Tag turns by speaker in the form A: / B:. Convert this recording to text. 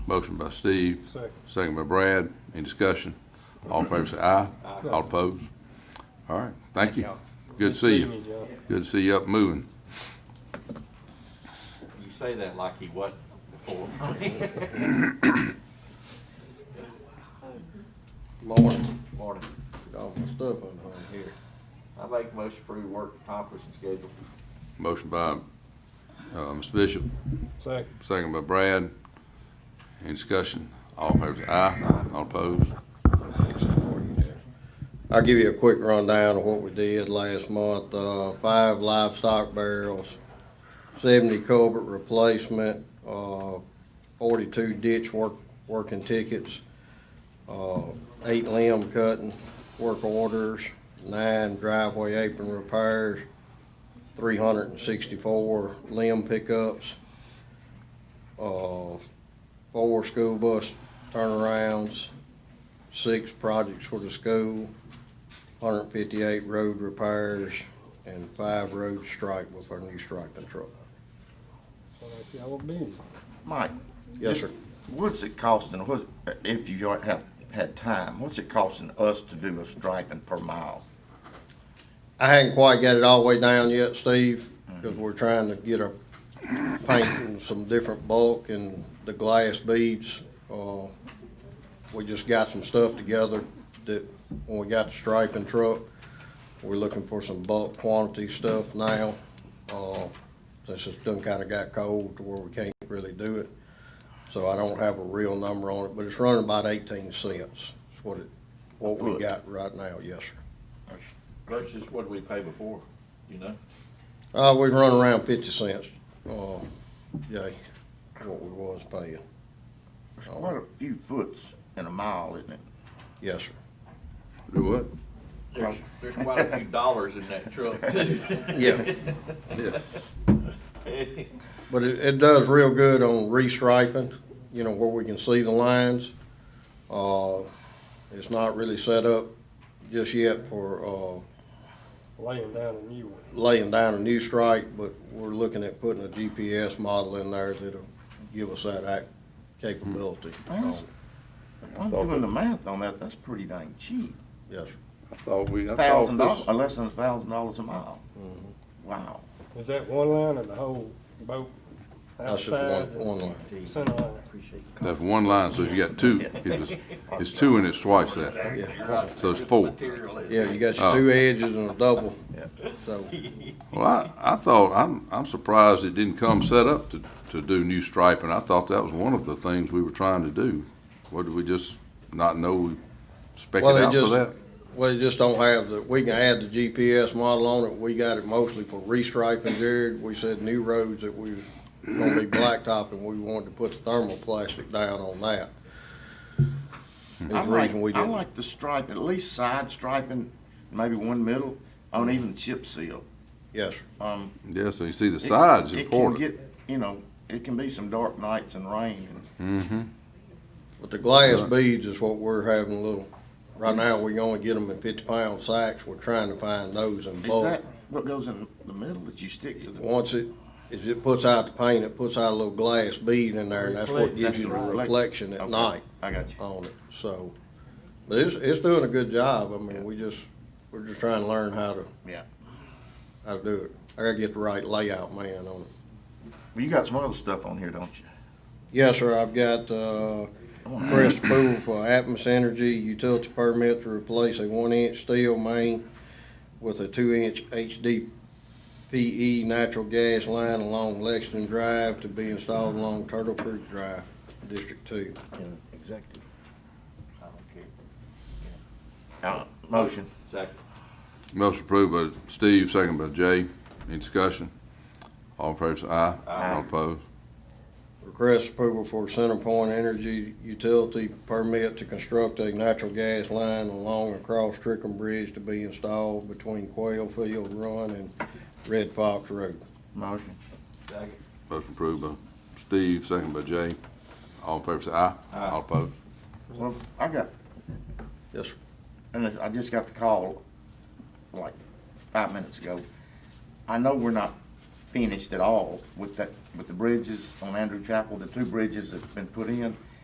A: Motion by Steve.
B: Second.
A: Second by Brad. Any discussion? All in favor say aye. All opposed? All right, thank you.
C: y'all.
A: Good to see
B: me,
A: you.
B: Joe.
A: Good to see you up and moving.
C: You say that like he wasn't before.
D: Morning,
C: Morning,
D: got all my stuff on here.
C: here. I make most approved work accomplishment schedule.
A: Motion by, uh, Mr. Bishop,
B: Second.
A: second by Brad. Any discussion? All in favor say aye. All opposed?
D: I'll give you a quick rundown of what we did last month. Uh, five livestock barrels, seventy culvert replacement, uh, forty-two ditch work, working tickets, uh, eight limb cutting, work orders, nine driveway apron repairs, three hundred and sixty-four limb pickups, uh, four school bus turnarounds, six projects for the school, 158 road repairs, and five road strike with our new strike control.
B: So like y'all busy.
E: Mike?
D: Yes,
E: just
D: sir.
E: What's it costing, what, if you have had time, what's it costing us to do a striping per mile?
D: I hadn't quite got it all the way down yet, Steve, because we're trying to get a paint and some different bulk and the glass beads. Uh, We just got some stuff together that, when we got the striping truck, we're looking for some bulk quantity stuff now. Uh, Since it's done kinda got cold to where we can't really do it. So I don't have a real number on it, but it's running about eighteen cents, is what it, what we
E: Foot.
D: got right now, yes, sir.
C: Versus what we paid before, you know?
D: Uh, we run around fifty cents, uh, yay, what we was paying,
E: It's quite a few foots in a mile, isn't it?
D: yes, sir.
A: Do what?
C: There's, there's quite a few dollars in that truck too.
D: Yeah,
A: Yeah.
D: but it, it does real good on restriping, you know, where we can see the lines. Uh, it's not really set up just yet for,
B: Laying down a new one.
D: uh, laying down a new strike, but we're looking at putting a GPS model in there that'll give us that act capability.
E: Yes.
D: So,
E: If I'm doing the math on that, that's pretty dang cheap.
D: Yes, sir.
F: I thought we, I thought
E: Thousand dollars,
F: this,
E: or less than a thousand dollars a mile.
D: Mm-hmm.
E: Wow.
B: Is that one line or the whole boat?
D: that's
B: Outsides
D: just
B: and
D: one, one line.
B: Center line.
A: That's one line, so you got two. If it's, it's two and it's twice that.
D: Yeah.
A: So it's four.
D: Yeah, you got
A: Oh.
D: your two edges and a double,
E: Yeah.
D: so.
A: Well, I, I thought, I'm, I'm surprised it didn't come set up to, to do new striping. I thought that was one of the things we were trying to do. What, did we just not know we spec it
D: Well, they
A: out for
D: just-
A: that?
D: Well, they just don't have the, we can add the GPS model on it, we got it mostly for restriping, Jared, we said new roads that we were gonna be blacktop, and we wanted to put the thermoplastic down on that. Is the
E: I like,
D: reason we
E: I
D: didn't.
E: like the stripe, at least side striping, maybe one middle, on even chip seal.
D: Yes, sir.
E: Um,
A: Yeah, so you see the
E: It-
A: side's
E: It
A: important.
E: can get, you know, it can be some dark nights and rain and
A: Mm-hmm.
D: but the glass
A: Right.
D: beads is what we're having a little, right now, we only get them in fifty pound sacks, we're trying to find those in
E: is
D: bulk.
E: that what goes in the middle that you stick to the?
D: Once it, if it puts out the paint, it puts out a little glass bead in there, and that's what
B: Reflect.
D: gives
E: That's
D: you the
E: the reflect-
D: reflection at
E: Okay,
D: night.
E: I got you.
D: on it, so. But it's, it's doing a good job, I mean, we just, we're just trying to learn how to.
E: Yeah.
D: How to do it. I gotta get the right layout man on it.
E: Well, you got some other stuff on here, don't you?
D: Yes, sir, I've got, uh,
E: I wanna-
D: press approval for Atmos Energy utility permit to replace a one-inch steel main with a two-inch HDPE E natural gas line along Lexington Drive to be installed along Turtle Creek Drive, District Two.
E: Executive.
C: I don't care.
E: Uh, motion.
C: Second.
A: Motion approved by Steve, second by Jay. Any discussion? All in favor say aye.
C: Aye.
A: All opposed?
D: Request approval for CenterPoint Energy Utility Permit to construct a natural gas line along and across Trickham Bridge to be installed between Quail Field Run and Red Fox Road.
E: Motion.
C: Second.
A: Motion approved by Steve, second by Jay. All in favor say aye.
C: Aye.
A: All opposed?
E: Well, I got,
D: Yes, sir.
E: and I just got the call like five minutes ago. I know we're not finished at all with that, with the bridges on Andrew Chapel, the two bridges that's been put in.